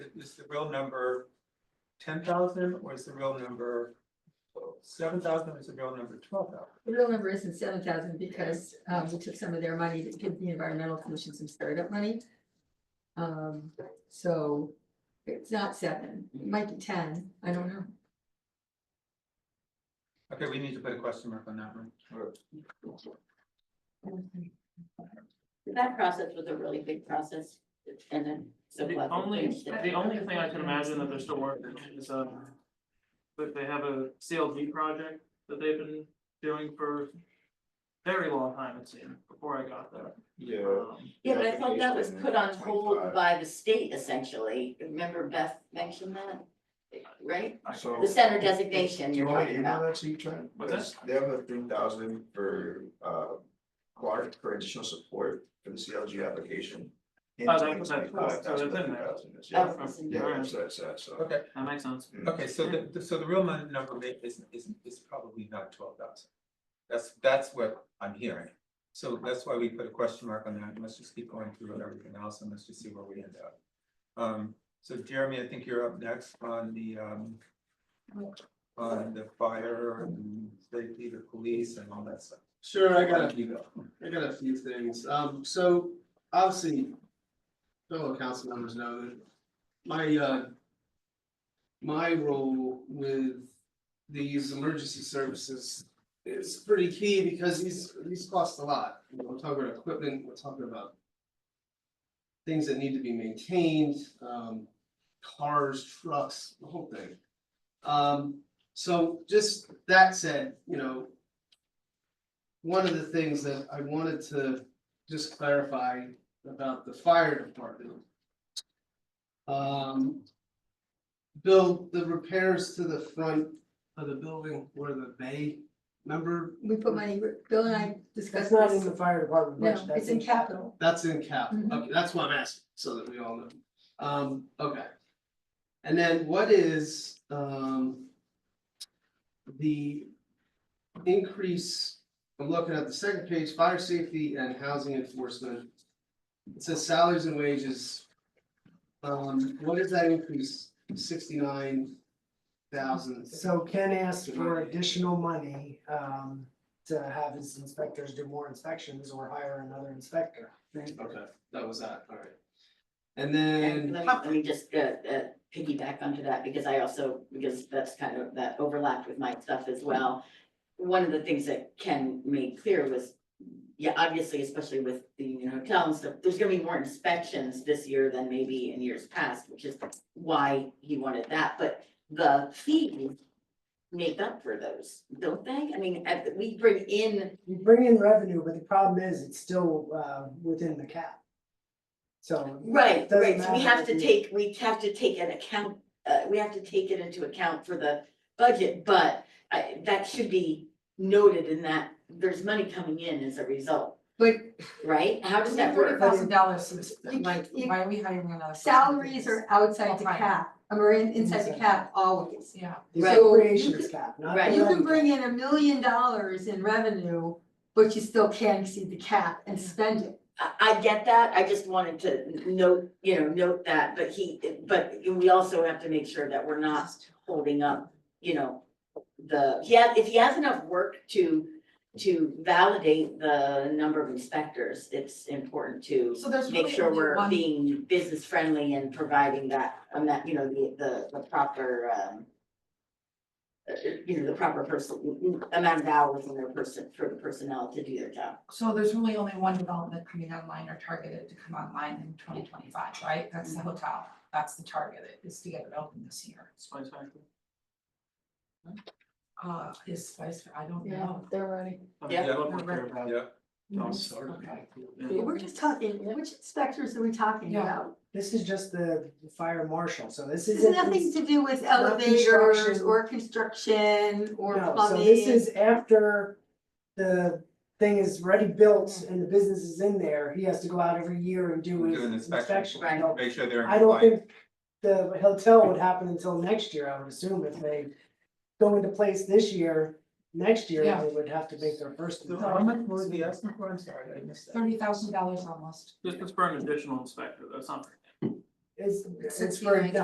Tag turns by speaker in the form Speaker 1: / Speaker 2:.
Speaker 1: is the real number ten thousand or is the real number seven thousand or is the real number twelve thousand?
Speaker 2: The real number isn't seven thousand because um we took some of their money to give the environmental commission some startup money. Um, so it's not seven, it might be ten, I don't know.
Speaker 1: Okay, we need to put a question mark on that one.
Speaker 3: That process was a really big process and then so
Speaker 4: The
Speaker 3: glad that
Speaker 4: only,
Speaker 3: they did.
Speaker 4: the only thing I can imagine that they're still working on is, um. But they have a CLD project that they've been doing for very long time, it seemed, before I got there.
Speaker 5: Yeah.
Speaker 4: Um,
Speaker 3: Yeah, but I thought that was put on hold
Speaker 5: 25.
Speaker 3: by the state essentially. Remember Beth mentioned that? Right?
Speaker 5: So.
Speaker 3: The center designation
Speaker 5: Do
Speaker 3: you're
Speaker 5: you want to
Speaker 3: talking
Speaker 5: email
Speaker 3: about.
Speaker 5: that to you, Trent?
Speaker 4: What's that?
Speaker 5: They have a three thousand for uh Clark for additional support for the CLG application. in
Speaker 4: Oh, that was that
Speaker 5: 2025.
Speaker 4: cost, so
Speaker 5: That's
Speaker 4: that's
Speaker 5: what
Speaker 4: in
Speaker 5: that
Speaker 4: there.
Speaker 5: 3,000 is,
Speaker 3: Oh,
Speaker 5: Yeah,
Speaker 3: it's in
Speaker 5: yeah,
Speaker 3: there.
Speaker 5: that's that's that, so. mm.
Speaker 1: Okay,
Speaker 4: That makes sense.
Speaker 1: okay, so the, the- so the real mon- number may- is is is probably not twelve thousand. That's that's what I'm hearing. So that's why we put a question mark on that. Let's just keep going through with everything else and let's just see where we end up. Um, so Jeremy, I think you're up next on the um. On the fire and safety, the police and all that stuff.
Speaker 6: Sure, I got,
Speaker 1: You go.
Speaker 6: a- I got a few things. Um, so obviously fellow council members know that my, uh, my role with these emergency services is pretty key because these, these cost a lot. You know, We're talking about equipment, we're talking about things that need to be maintained, um, cars, trucks, the whole thing. Um, so just that said, you know, one of the things that I wanted to just clarify about the fire department. Um. Bill, the repairs to the front of the building where the bay, remember,
Speaker 2: We put money, Bill and I discussed
Speaker 7: That's not in
Speaker 2: this,
Speaker 7: the fire department budget.
Speaker 2: no, it's in capital,
Speaker 6: that's in cap,
Speaker 2: Mhm.
Speaker 6: okay, that's what I'm asking, so that we all know, um, okay. And then what is, um. The increase, I'm looking at the second page, fire safety and housing enforcement. It says salaries and wages. Um, what is that increase, sixty-nine thousand?
Speaker 7: So Ken asked for additional money, um, to have his inspectors do more inspections or hire another inspector.
Speaker 6: Okay, that was that, alright.
Speaker 3: And
Speaker 6: And then,
Speaker 3: let me, let me just uh uh piggyback onto that because I also, because that's kind of, that overlapped with my stuff as well. One of the things that Ken made clear was, yeah, obviously, especially with the Union Hotel and stuff, there's gonna be more inspections this year than maybe in years past, which is why he wanted that, but the fees make up for those, don't they? I mean, at- we bring in,
Speaker 7: You bring in revenue, but the problem is it's still, uh, within the cap. So
Speaker 3: right,
Speaker 7: Doesn't
Speaker 3: right, so we
Speaker 7: matter
Speaker 3: have to
Speaker 7: if you-
Speaker 3: take, we have to take an account, uh, we have to take it into account for the budget, but I, that should be noted in that there's money coming in as a result,
Speaker 2: but
Speaker 3: right? How does that
Speaker 8: Forty
Speaker 3: work?
Speaker 8: thousand dollars,
Speaker 2: You-
Speaker 8: like,
Speaker 2: you-
Speaker 8: why are we hiring another? person?
Speaker 2: salaries are outside the
Speaker 8: Full-time.
Speaker 2: cap, I mean, inside the cap always.
Speaker 8: Yeah,
Speaker 7: the
Speaker 3: Right.
Speaker 7: appropriations cap, not the
Speaker 3: Right.
Speaker 2: You can
Speaker 7: revenue.
Speaker 2: bring in a million dollars in revenue, but you still can't exceed the cap and spend it.
Speaker 3: I, I get that, I just wanted to n- note, you know, note that, but he, but we also have to make sure that we're not holding up, you know, the, he has, if he has enough work to, to validate the number of inspectors, it's important to
Speaker 8: so there's
Speaker 3: make
Speaker 8: really
Speaker 3: sure
Speaker 8: only
Speaker 3: we're
Speaker 8: one,
Speaker 3: being business friendly and providing that, um, that, you know, the, the, the proper, um, uh, you know, the proper person, amount of hours in their person, for the personnel to do their job.
Speaker 8: so there's really only one development coming online or targeted to come online in twenty twenty five, right? That's the
Speaker 2: Mm.
Speaker 8: hotel, that's the target, is to get it open this year.
Speaker 4: It's my time.
Speaker 2: Ah.
Speaker 8: Uh, is Spice, I don't know.
Speaker 9: They're ready.
Speaker 4: I mean,
Speaker 3: Yeah.
Speaker 4: they don't care about
Speaker 1: Yeah,
Speaker 4: Don't
Speaker 8: Okay.
Speaker 4: Yeah.
Speaker 2: We're just talking, which inspectors are we talking
Speaker 8: Yeah.
Speaker 2: about?
Speaker 7: This is just the the fire marshal, so this
Speaker 2: This
Speaker 7: is.
Speaker 2: has nothing to do with
Speaker 7: not
Speaker 2: elevators
Speaker 7: construction.
Speaker 2: or construction or
Speaker 7: No, so this
Speaker 2: plumbing.
Speaker 7: is after the thing is already built and the business is in there, he has to go out every year and do
Speaker 1: Do
Speaker 7: his
Speaker 1: an inspection.
Speaker 7: inspection.
Speaker 3: Right.
Speaker 7: No,
Speaker 1: make sure they're in
Speaker 7: I don't
Speaker 1: compliance.
Speaker 7: think the hotel would happen until next year, I would assume, if they go into place this year, next year,
Speaker 8: Yeah.
Speaker 7: they would have to make their first.
Speaker 1: So how much was the estimate for? I'm sorry, I missed that.
Speaker 8: Thirty thousand dollars almost.
Speaker 4: Just, it's for an additional inspector, that's not.
Speaker 7: It's, it's
Speaker 8: Since
Speaker 7: for
Speaker 8: you-